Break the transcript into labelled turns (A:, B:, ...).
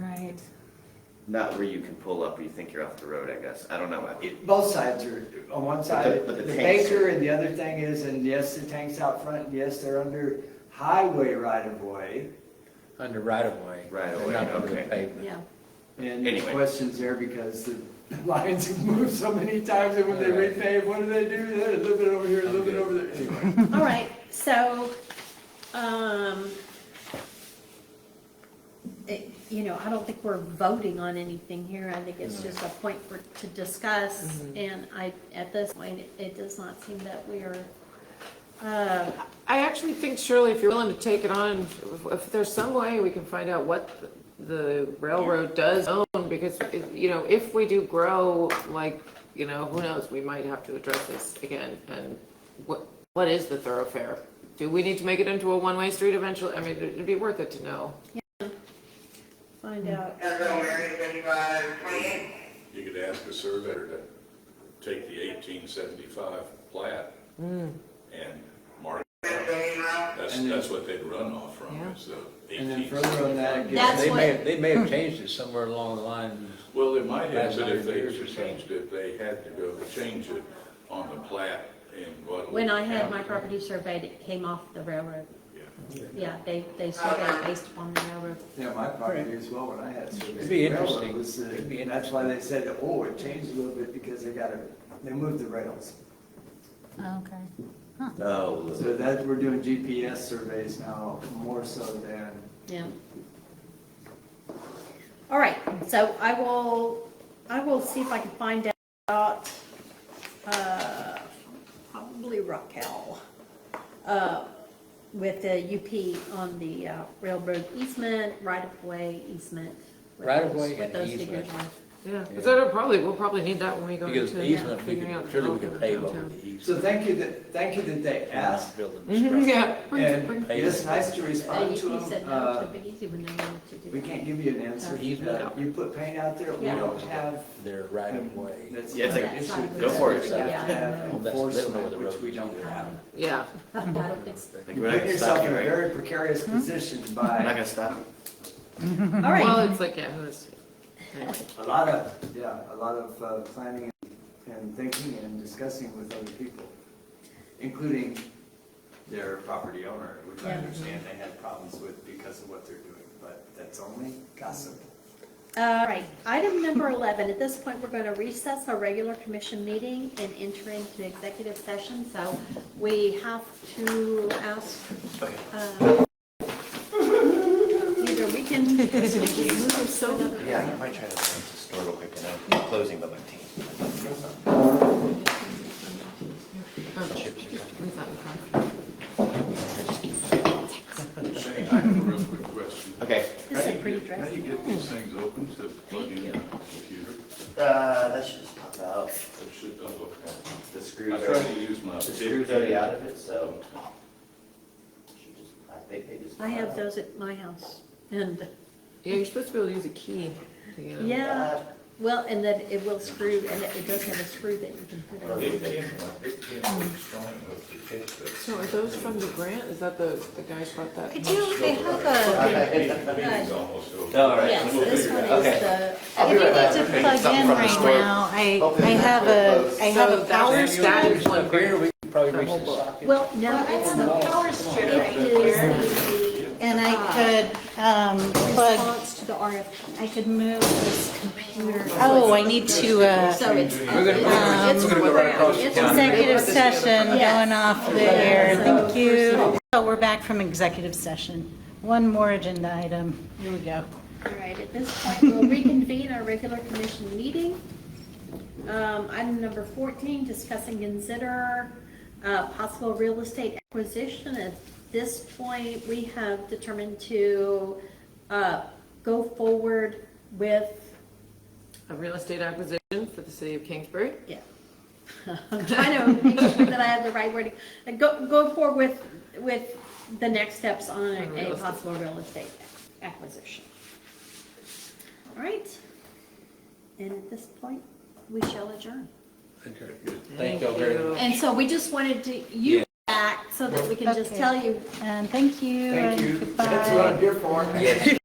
A: not where you can pull up where you think you're off the road, I guess. I don't know. It,
B: Both sides are, on one
A: the-
B: side,
A: but the
B: the
A: tanks
B: Baker,
A: are-
B: and the other thing is, and yes, the tank's out front, and yes, they're under highway right of way.
C: Under right of way.
A: Right of
C: They're
A: way,
C: Not under the
A: okay.
C: pavement.
D: Yeah,
B: And the
A: Anyway.
B: question's there because the lines have moved so many times, and when they
C: Right.
B: repave, what do they do? They're A little bit over here, a little bit over there, anyway.
D: all right, so, um, it- you know, I don't think we're voting on anything here, I think it's just a point for, to discuss, and I, at this point, it- it does not seem that we are, uh,
E: I actually think Shirley, if you're willing to take it on, if- if there's some way we can find out what the railroad does own, because, if- you know, if we do grow, like, you know, who knows, we might have to address this again, and what, what is the thoroughfare? Do we need to make it into a one-way street eventually? I mean, it'd be worth it to know.
D: find out.
F: Central Mary Drive, twenty-eight.
G: You could ask a surveyor to take the eighteen seventy-five plat and mark, that's,
B: And then-
G: that's what they'd run off from, is the
B: And then
G: eighteen
B: further on that,
G: seventy-five.
B: it
D: That's-
B: gives,
C: They
D: what-
C: may, have- they may have changed it somewhere along the line.
G: Well, they might have,
C: Last
G: but if
C: hundred
G: they
C: years or so.
G: changed it, they had to go change it on the plat in Guadalupe.
D: When I had
G: County.
D: my property surveyed, it came off the railroad,
G: Yeah.
D: yeah, they, they surveyed based upon the railroad.
B: yeah, my property as well, when I had.
C: It'd be interesting. It'd be
B: And that's why they said, oh, it changed a little bit, because they got a, they moved the rails.
H: Okay.
A: oh,
B: So that, we're doing GPS surveys now more so than,
D: Yeah. All right, so I will, I will see if I can find out, uh, probably Raquel, uh, with the UP on the uh, railroad easement, right-of-way easement. what
C: Right-of-way
D: those- what
C: and
D: those
C: easement.
D: figures are.
E: Yeah,
C: Yeah.
E: because that'll probably, we'll probably need that when we go into.
C: Because the easement, we
E: figuring out
C: could,
E: the
C: surely we could
E: development
C: pave
E: of
C: over
E: downtown.
C: the easement.
B: so thank you that, thank you that they asked.
E: Mhm, Yeah.
B: And it's nice to
D: Uh,
B: respond to
D: UP
B: them.
D: said no
B: Uh,
D: to Big Easy when they wanted to do
B: We
D: that.
B: can't give you an answer.
C: Easement.
B: Uh, You put paint out there, we
D: Yeah.
B: don't have.
C: Their right of way.
B: that's-
A: Yeah, it's like,
B: that's-
A: go for it.
B: that's- that's-
C: Well, that's- they don't know where the
B: Enforcement, which
C: road
B: we
C: is
B: don't
C: either.
B: have.
E: Yeah.
D: I don't think so.
A: like,
B: You
A: we're not
B: put
A: gonna
B: yourself
A: stop you,
B: in a
A: right?
B: very precarious
D: Hmm?
B: position
A: We're not
B: by
A: gonna stop you.
D: All
E: Well,
D: right,
E: it's like, yeah, who's, anyway.
B: a lot of, yeah, a lot of uh, planning and thinking and discussing with other people, including their property owner, which I
D: Yeah.
B: understand they had problems with because of what they're doing, but that's only gossip.
D: all right, item number 11, at this point, we're going to recess our regular commission meeting and enter into executive session, so we have to ask, uh, either we can, we can move so,
A: Yeah, I might try to store real quick and I'm closing by my team.
G: Shane, I have a real quick question.
A: Okay.
D: this
G: How
D: is
G: do
D: a pretty
G: you get-
D: dress.
G: How do you get these things open to plug in the computer?
A: Uh, that should just pop out.
G: That should not look out.
A: The
G: I
A: screws
G: try
A: are,
G: to use my.
A: the screws
G: big-
A: already out of it, so. should just- I think they just.
D: I have
A: pop
D: those at my house, and,
E: Yeah, you're supposed to be able to use a key. to get in.
A: out.
D: yeah,
A: Uh,
D: well, and then it will screw, and it it does have a screw that you can put on.
G: It came, it came with strong enough to catch that.
E: So are those from the grant? Is that the, the guy who bought that?
D: Could you, they have a,
G: Meeting's almost over.
A: All right.
D: yes, this one
A: out. Okay.
D: is the,
H: I think
A: right
H: I
A: back.
H: need
A: Okay,
H: to plug
A: something
H: in
A: from the
H: right
A: store.
H: now. I,
A: Hopefully
H: I
A: it's
H: have
A: not
H: a,
A: closed.
H: I have
E: So
H: a power
E: that's-
H: strip.
C: There's one here, we could probably reach the socket.
D: well, no, it's the
H: power strip
D: It is the
H: And I could, um, plug,
D: response to the RFP.
H: Ah. I could move this computer. Oh, I need to, uh,
D: So it's, um,
C: We're gonna, we're gonna go right across the
D: It's
C: county.
H: executive session
D: Yes.
H: going off the air. Thank you. So we're back from executive session. One more agenda item. Here we go.
D: all right, at this point, we'll reconvene our regular commission meeting. Um, Item number 14, discussing consider uh, possible real estate acquisition. At this point, we have determined to uh, go forward with,
E: A real estate acquisition for the city of Kingsbury?
D: yeah. I'm trying to make sure that I have the right wording. Uh, Go, go forward with, with the next steps on
E: On real
D: a
E: estate.
D: possible real estate acquisition. All right. And at this point, we shall adjourn.
C: Thank y'all very much.
D: And so we just wanted to, you back so that we can just
H: Okay.
D: tell you
H: And thank you.
B: Thank
H: and
B: you.
H: Goodbye.
B: That's what I'm here for.